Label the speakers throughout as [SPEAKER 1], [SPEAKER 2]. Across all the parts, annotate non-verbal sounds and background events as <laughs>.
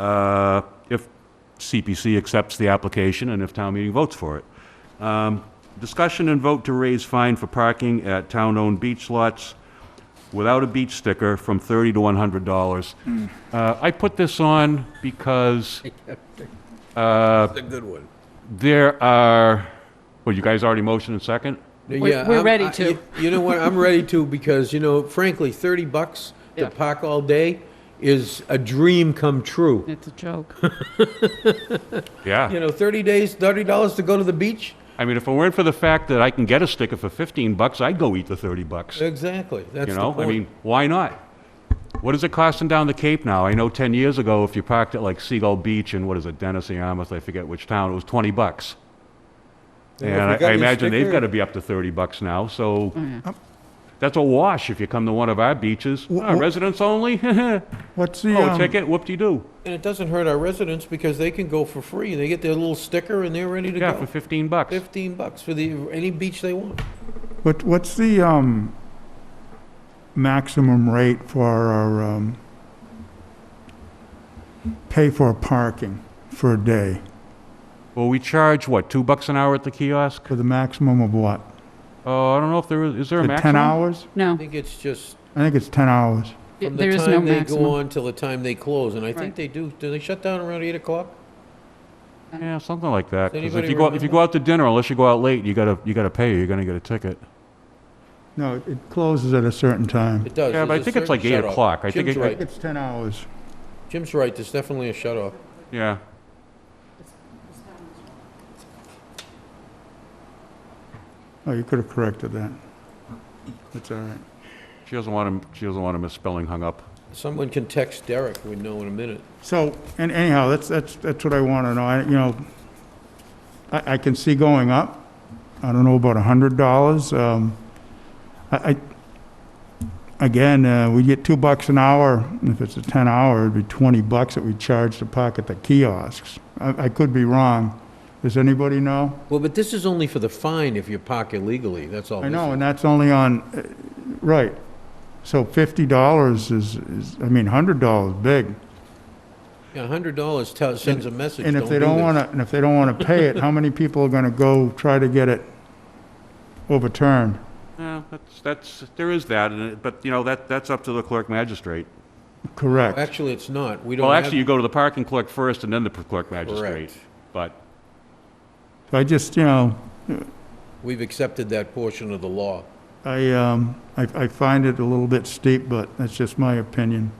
[SPEAKER 1] uh, if CPC accepts the application and if town meeting votes for it. Um, Discussion and vote to raise fine for parking at town-owned beach lots without a beach sticker from $30 to $100. Uh, I put this on because
[SPEAKER 2] That's a good one.
[SPEAKER 1] there are, well, you guys already motioned and second?
[SPEAKER 3] We're- we're ready to.
[SPEAKER 2] You, you know what? I'm ready to because you know, frankly, thirty bucks
[SPEAKER 3] Yeah.
[SPEAKER 2] to park all day is a dream come true.
[SPEAKER 3] It's a joke.
[SPEAKER 2] <laughs> You
[SPEAKER 1] Yeah.
[SPEAKER 2] know, thirty days, thirty dollars to go to the beach.
[SPEAKER 1] I mean, if it weren't for the fact that I can get a sticker for 15 bucks, I'd go eat the 30 bucks.
[SPEAKER 2] Exactly. That's
[SPEAKER 1] You
[SPEAKER 2] the
[SPEAKER 1] know, I
[SPEAKER 2] point.
[SPEAKER 1] mean, why not? What is it costing down the Cape now? I know 10 years ago, if you parked at like Seagull Beach and what is it, Dennis or Yarmouth, I forget which town, it was 20 bucks.
[SPEAKER 2] if
[SPEAKER 1] And
[SPEAKER 2] you
[SPEAKER 1] I
[SPEAKER 2] got
[SPEAKER 1] I
[SPEAKER 2] your
[SPEAKER 1] imagine they've
[SPEAKER 2] sticker- Mm-hmm.
[SPEAKER 1] got to be up to 30 bucks now, so that's a wash if you come to one of our beaches.
[SPEAKER 4] Wh-
[SPEAKER 1] Ah,
[SPEAKER 4] wh-
[SPEAKER 1] Residents only? <laughs> Oh,
[SPEAKER 4] What's the, um,
[SPEAKER 1] ticket, whoop-de-doo.
[SPEAKER 2] and it doesn't hurt our residents because they can go for free. They get their little sticker and they're ready to
[SPEAKER 1] Yeah,
[SPEAKER 2] go.
[SPEAKER 1] for 15 bucks.
[SPEAKER 2] Fifteen bucks for the any beach they want.
[SPEAKER 4] what, what's the, um, maximum rate for our, um, pay for parking for a day?
[SPEAKER 1] Well, we charge, what, 2 bucks an hour at the kiosk?
[SPEAKER 4] For the maximum of what?
[SPEAKER 1] Oh, I don't know if there is, is there a
[SPEAKER 4] For
[SPEAKER 1] maximum?
[SPEAKER 4] Ten hours?
[SPEAKER 2] I
[SPEAKER 3] No,
[SPEAKER 2] think it's just
[SPEAKER 4] I think it's ten hours.
[SPEAKER 3] it-
[SPEAKER 2] from
[SPEAKER 3] there
[SPEAKER 2] the
[SPEAKER 3] is
[SPEAKER 2] time
[SPEAKER 3] no
[SPEAKER 2] they go
[SPEAKER 3] maximum.
[SPEAKER 2] on till the time they close, and I
[SPEAKER 3] Right.
[SPEAKER 2] think they do. Do they shut down around eight o'clock?
[SPEAKER 1] Yeah, something like that.
[SPEAKER 2] Does
[SPEAKER 1] 'Cause if
[SPEAKER 2] anybody
[SPEAKER 1] you go, if you
[SPEAKER 2] remember?
[SPEAKER 1] go out to dinner, unless you go out late, you gotta, you gotta pay, you're gonna get a ticket.
[SPEAKER 4] No, it- it closes at a certain time.
[SPEAKER 2] It does.
[SPEAKER 1] Yeah, but
[SPEAKER 2] There's
[SPEAKER 1] I
[SPEAKER 2] a
[SPEAKER 1] think it's
[SPEAKER 2] certain
[SPEAKER 1] like eight
[SPEAKER 2] shut-off.
[SPEAKER 1] o'clock. I think
[SPEAKER 2] Jim's
[SPEAKER 1] it-
[SPEAKER 2] right.
[SPEAKER 4] It's ten hours.
[SPEAKER 2] Jim's right. There's definitely a shut off.
[SPEAKER 1] Yeah.
[SPEAKER 4] Oh, you could have corrected that. That's all right.
[SPEAKER 1] She doesn't want him, she doesn't want him misspelling hung up.
[SPEAKER 2] Someone can text Derek, we know in a minute.
[SPEAKER 4] So, and anyhow, that's, that's, that's what I want to know. I, you know, I, I can see going up. I don't know about a hundred dollars. Um, I, I, again, uh, we get two bucks an hour. and If it's a ten hour, it'd be twenty bucks that we charge to park at the kiosks. I, I could be wrong. Does anybody know?
[SPEAKER 2] Well, but this is only for the fine if you park illegally, that's all.
[SPEAKER 4] I
[SPEAKER 2] this
[SPEAKER 4] know,
[SPEAKER 2] is.
[SPEAKER 4] and that's only on, uh, right. So fifty dollars is, is, I mean, hundred dollars, big.
[SPEAKER 2] Yeah, A hundred dollars tells, sends a message,
[SPEAKER 4] And if they don't want to, and if they don't want to pay it, how many people are going to go try to get it overturned?
[SPEAKER 1] Yeah, that's, that's, there is that, and it- but, you know, that, that's up to the clerk magistrate.
[SPEAKER 4] Correct.
[SPEAKER 2] Actually, it's not, we don't
[SPEAKER 1] Well,
[SPEAKER 2] have.
[SPEAKER 1] actually, you go to the parking clerk first and then the clerk magistrate.
[SPEAKER 2] Correct.
[SPEAKER 1] But,
[SPEAKER 4] So I just, you know,
[SPEAKER 2] We've accepted that portion of the law.
[SPEAKER 4] I, um, I, I find it a little bit steep, but that's just my opinion.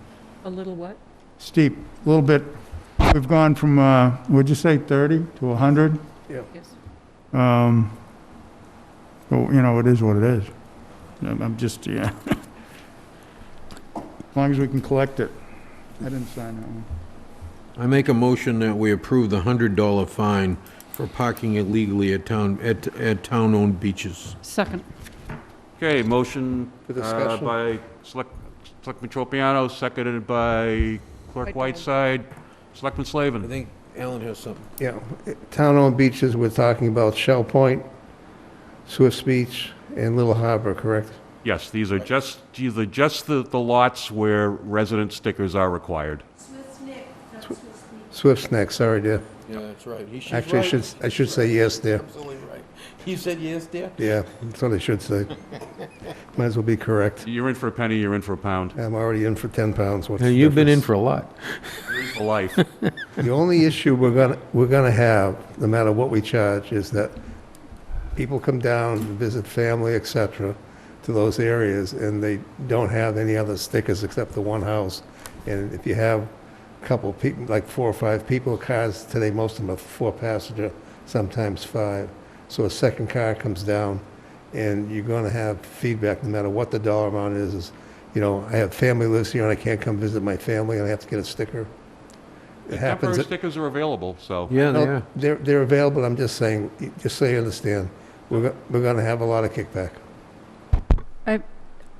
[SPEAKER 3] A little what?
[SPEAKER 4] Steep, a little bit, we've gone from, uh, would you say thirty to a hundred?
[SPEAKER 3] Yes.
[SPEAKER 4] Um, well, you know, it is what it is. I'm I'm just, yeah. <laughs> As long as we can collect it. I didn't sign that one.
[SPEAKER 2] I make a motion that we approve the hundred dollar fine for parking illegally at town, at, at town-owned beaches.
[SPEAKER 3] Second.
[SPEAKER 1] okay, motion uh,
[SPEAKER 2] discussion?
[SPEAKER 1] by Select, Selectman Tropiano, seconded by Clerk Whiteside, Selectman
[SPEAKER 2] I
[SPEAKER 1] Slavin.
[SPEAKER 2] think Alan has something.
[SPEAKER 5] Yeah, town-owned beaches, we're talking about Shell Point, Swift's Beach, and Little Harbor, correct?
[SPEAKER 1] Yes, these are just, these are just the, the lots where resident stickers are required.
[SPEAKER 5] Swift's next, sorry, dear.
[SPEAKER 2] Yeah, that's right. He- she's
[SPEAKER 5] Actually, I
[SPEAKER 2] right.
[SPEAKER 5] should, I should say yes, dear.
[SPEAKER 2] Absolutely right. You said yes, dear?
[SPEAKER 5] Yeah, that's what I
[SPEAKER 2] <laughs>
[SPEAKER 5] should say. Might as well be correct.
[SPEAKER 1] You're in for a penny, you're in for a
[SPEAKER 2] <laughs>
[SPEAKER 1] pound,
[SPEAKER 5] I'm already in for 10 pounds, what's the
[SPEAKER 2] You've been in
[SPEAKER 5] difference?
[SPEAKER 2] for a lot.
[SPEAKER 1] you're in for life.
[SPEAKER 5] The only issue we're gonna, we're gonna have, no matter what we charge, is that people come down, to visit family, et cetera, to those areas, and they don't have any other stickers except the one house. And if you have a couple people, like four or five people, cars today, most of them are four passenger, sometimes five. So a second car comes down, and you're gonna have feedback, no matter what the dollar amount is, is, you know, I have family lives here, and I can't come visit my family, and I have to get a sticker. It happens.
[SPEAKER 1] Temporary stickers are available, so.
[SPEAKER 2] Yeah, they
[SPEAKER 5] No,
[SPEAKER 2] are.
[SPEAKER 5] They're, they're available, I'm just saying, just so you understand, we're, go- we're gonna have a lot of kickback.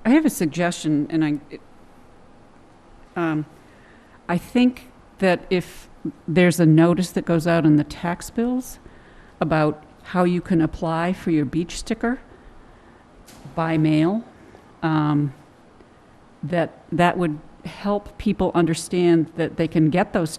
[SPEAKER 3] I have a suggestion, and I, it- um, I think that if there's a notice that goes out in the tax bills about how you can apply for your beach sticker by mail, um, that that would help people understand that they can get those